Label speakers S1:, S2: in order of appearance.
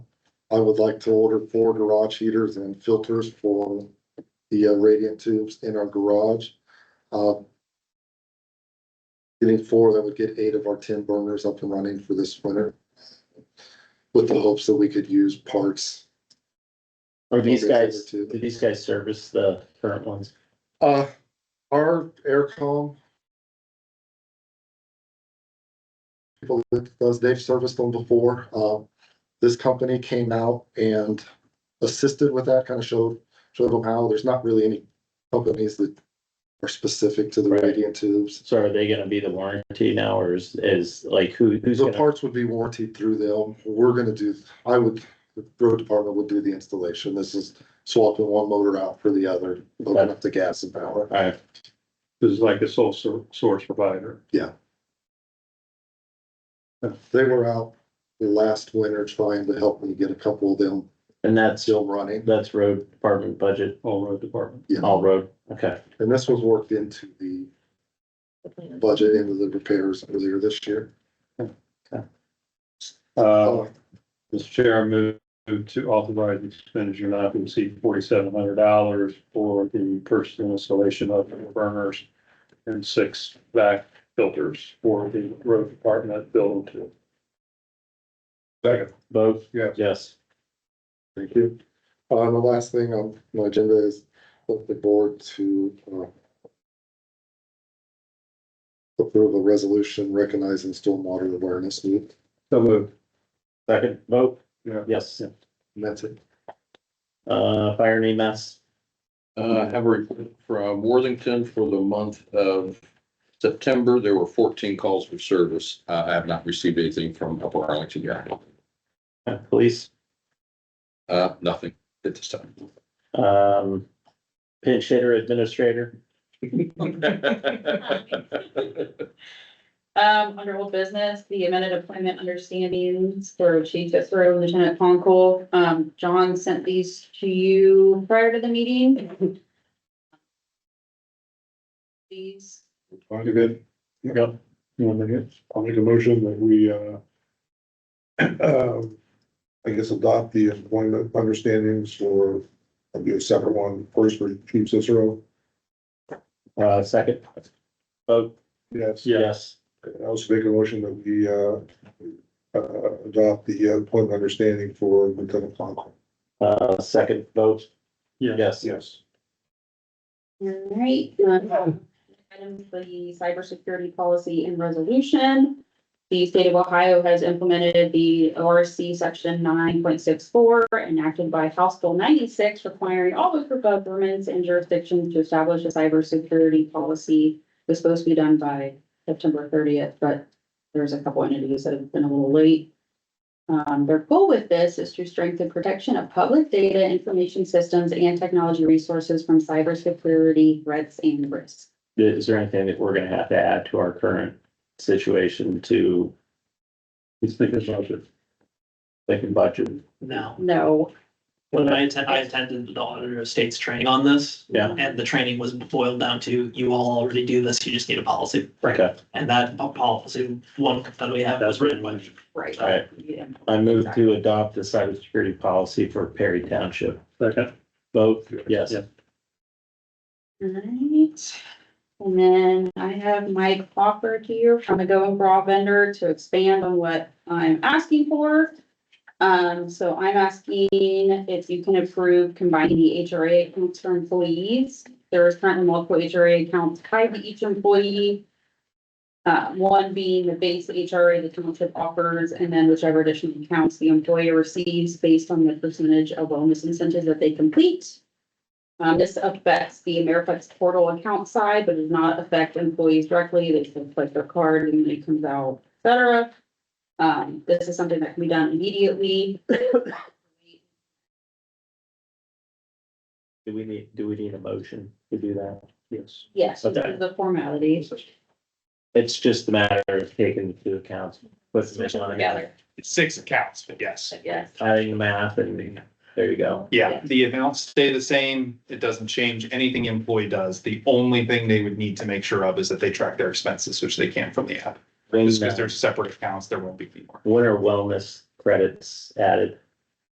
S1: I would like to order four garage heaters and filters for the uh, radiant tubes in our garage. Uh, Getting four, that would get eight of our ten burners up and running for this winter. With the hopes that we could use parts.
S2: Are these
S1: Okay,
S2: guys,
S1: too.
S2: do these guys service the current ones?
S1: Uh, our aircom. People that does, they've serviced them before. Um, this company came out and assisted with that, kind of showed, showed them how. There's not really any companies that are specific to the
S2: Right.
S1: radiant tubes.
S2: So are they gonna be the warranty now or is, is like who, who's
S1: The
S2: gonna?
S1: parts would be warranted through them. We're gonna do, I would, the road department would do the installation. This is swapping one motor out for the other, open up the gas and power.
S2: Alright,
S3: This is like a sole sor- source provider.
S1: They were out last winter trying to help me get a couple of them
S2: and that's,
S1: still running,
S2: that's road department budget,
S3: all road department.
S2: all road, okay.
S1: and this was worked into the budget into the repairs earlier this year. Oh.
S3: Uh, Mr. Chair, I move move to authorize expenditure not to exceed forty-seven hundred dollars for the purchase and installation of burners and six back filters for the road department building two. Second.
S2: Both?
S3: Yes.
S2: Yes.
S1: Thank you. Uh, the last thing on my agenda is with the board to, uh, approve a resolution recognizing stormwater awareness week,
S3: So moved.
S2: Second, vote?
S3: Yeah.
S2: Yes.
S1: and that's it.
S2: Uh, fire and EMS,
S4: Uh, I have a report from Worthington for the month of September. There were fourteen calls for service. Uh, I have not received anything from Upper Arlington yet.
S2: uh, police,
S4: Uh, nothing at this time.
S2: um, pinch hitter administrator,
S5: Um, under old business, the amended employment understandings for Chief Fitzroy and Lieutenant Conkle. Um, John sent these to you prior to the meeting. These,
S3: You're good.
S2: Yep.
S3: You want to make it? I'll make a motion that we, uh,
S6: um, I guess adopt the employment understandings for, I'll do a separate one first for Chief Cicero.
S2: uh, second, vote?
S6: Yes.
S2: Yes.
S6: I also make a motion that we, uh, uh, adopt the employment understanding for Lieutenant Conkle.
S2: Uh, second, vote?
S3: Yeah.
S2: Yes.
S6: Yes.
S5: all right, um, item for the cybersecurity policy and resolution. The state of Ohio has implemented the ORC section nine point six four enacted by House Bill ninety-six requiring all local governments and jurisdictions to establish a cybersecurity policy. It was supposed to be done by September thirtieth, but there's a couple entities that have been a little late. Um, their goal with this is to strengthen protection of public data, information systems, and technology resources from cybersecurity threats and risks.
S2: Is there anything that we're gonna have to add to our current situation to
S3: he's thinking about it.
S2: thinking budget?
S7: No,
S5: No,
S7: but I attend, I attended the Auditor of State's training on this.
S2: Yeah.
S7: And the training was boiled down to, you all already do this, you just need a policy.
S2: Okay,
S7: And that po- policy, one that we have was written by.
S5: Right.
S2: Right.
S5: Yeah.
S2: I move to adopt the cybersecurity policy for Perry Township.
S3: Second.
S2: Vote, yes.
S3: Yeah.
S5: Alright, and then I have Mike Hopper here from the Going Raw vendor to expand on what I'm asking for. Um, so I'm asking if you can approve combining the HRA accounts for employees. There is currently multiple HRA accounts tied to each employee. Uh, one being the base HRA the township offers, and then whichever additional accounts the employer receives based on the percentage of wellness incentives that they complete. Um, this affects the Ameriflex portal account side, but does not affect employees directly. They can click their card and it comes out, et cetera. Um, this is something that can be done immediately.
S2: Do we need, do we need a motion to do that? Yes.
S5: Yes, this
S2: Okay.
S5: is the formality.
S2: It's just a matter of taking into account what's going on.
S5: Together,
S8: It's six accounts, but yes.
S5: yes.
S2: Adding the math and there you go.
S8: Yeah,
S5: Yeah.
S8: the amounts stay the same. It doesn't change. Anything employee does. The only thing they would need to make sure of is that they track their expenses, which they can from the app.
S2: When
S8: Just because
S2: uh,
S8: they're separate accounts, there won't be any more.
S2: when are wellness credits added?